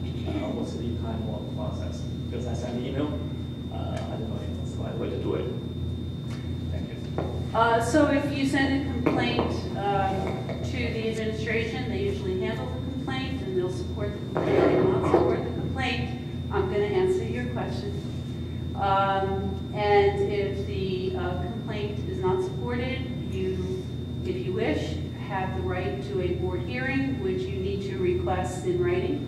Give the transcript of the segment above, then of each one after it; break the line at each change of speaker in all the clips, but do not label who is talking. Uh, time long process, because I sent an email, uh, I don't know if that's the right way to do it. Thank you.
Uh, So if you send a complaint um, to the administration, they usually handle the complaint, and they'll support the complaint, if they not support the complaint, I'm going to answer your question. Um, And if the uh, complaint is not supported, you, if you wish, have the right to a board hearing, which you need to request in writing.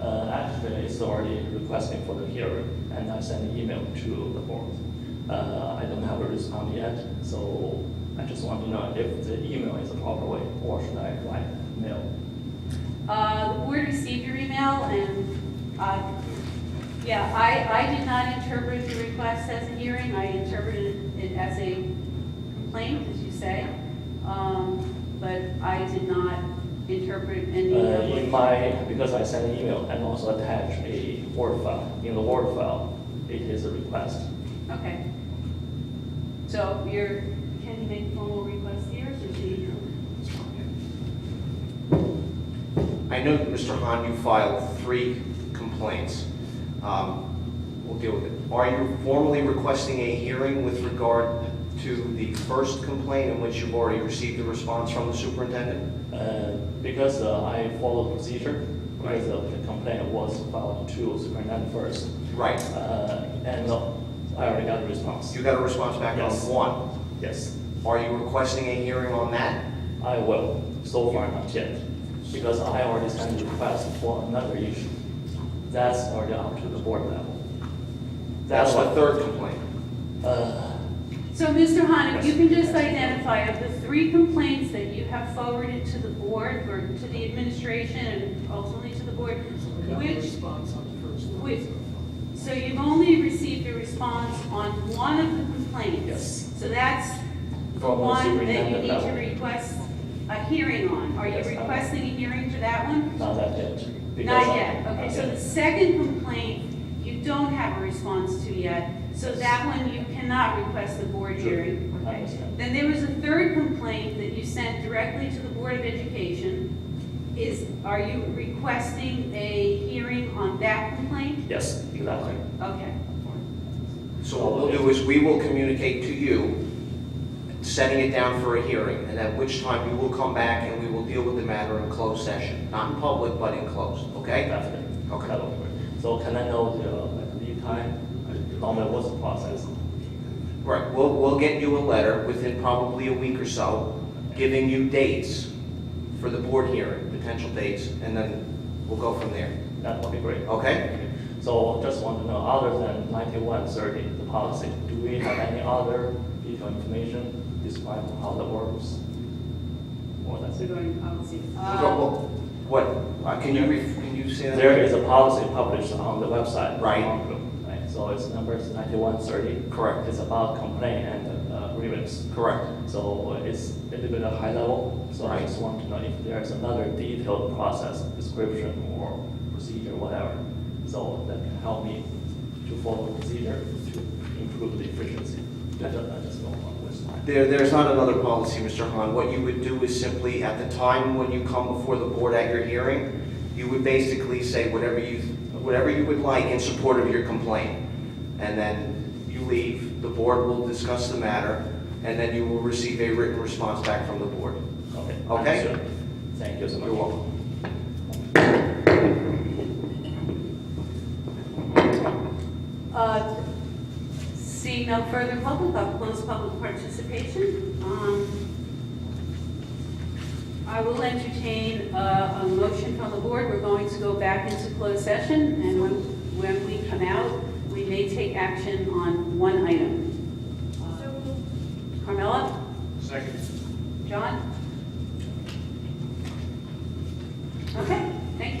Uh, Actually, it's already requesting for the hearing, and I sent an email to the board. Uh, I don't have a response yet, so I just want to know if the email is the proper way, or should I write mail?
Uh, The board received your email, and, uh, yeah, I, I did not interpret the request as a hearing, I interpreted it as a complaint, as you say, Um, but I did not interpret
Uh,
any of
In
what...
my, because I sent an email and also attached a Word file. In the Word file, it is a request.
Okay. So you're, can you make formal requests here, or should you?
I know, Mr. Hahn, you filed three complaints. Um, We'll deal with it. Are you formally requesting a hearing with regard to the first complaint in which you've already received a response from the superintendent?
Uh, Because uh, I follow procedure, because uh, the complaint was filed to superintendent first.
Right.
Uh, And uh, I already got a response.
You got a response back on
Yes.
one.
Yes,
Are you requesting a hearing on that?
I will. So far, not yet. Because I already sent a request for another issue. That's already up to the board level.
That's the
That one,
third complaint.
uh,
So, Mr. Hahn, if you can just identify of the three complaints that you have forwarded to the board or to the administration and ultimately to the board, which,
response on the first one.
which, so you've only received a response on one of the complaints?
Yes.
So that's the
From the
one that you
superintendent
need to
level.
request a hearing on. Are you
Yes, I-
requesting a hearing for that one?
not that yet. because
Not
I-
yet, okay,
not
so
yet.
the second complaint, you don't have a response to yet, so that one you cannot request the board
Sure,
hearing,
I
okay?
understand.
Then there was a third complaint that you sent directly to the Board of Education. Is, are you requesting a hearing on that complaint?
Yes, exactly.
Okay.
So what we'll do is we will communicate to you, setting it down for a hearing, and at which time you will come back and we will deal with the matter in closed session, not in public, but in closed, okay?
Definitely.
Okay.
That will work. So can I know the uh, like, lead time, normal what's the process?
Right, we'll, we'll get you a letter within probably a week or so, giving you dates for the board hearing, potential dates, and then we'll go from there,
That would be great.
okay?
So just want to know, other than ninety-one thirty, the policy, do we have any other detailed information describing how that works? Or that's
So
it?
going to policy.
We'll
Uh,
go- we'll- What, uh, can you, re- can you say that?
There is a policy published on the website.
Right.
Right, So it's number ninety-one thirty.
Correct.
It's about complaint and uh, grievance.
Correct.
So it's a little bit of high level, so I
Right.
just want to know if there's another detailed process, description or procedure, whatever. So that can help me to follow procedure to improve the efficiency. I just, I just don't want to waste time.
There, there's not another policy, Mr. Hahn. What you would do is simply, at the time when you come before the board at your hearing, you would basically say whatever you, whatever you would like in support of your complaint. And then you leave, the board will discuss the matter, and then you will receive a written response back from the board.
Okay.
Okay.
understood. Thank you so much.
You're welcome.
Uh, Seeing no further public, I'll close public participation. Um, I will entertain uh, a motion from the board. We're going to go back into closed session, and when when we come out, we may take action on one item. Uh, Carmella?
Second.
John?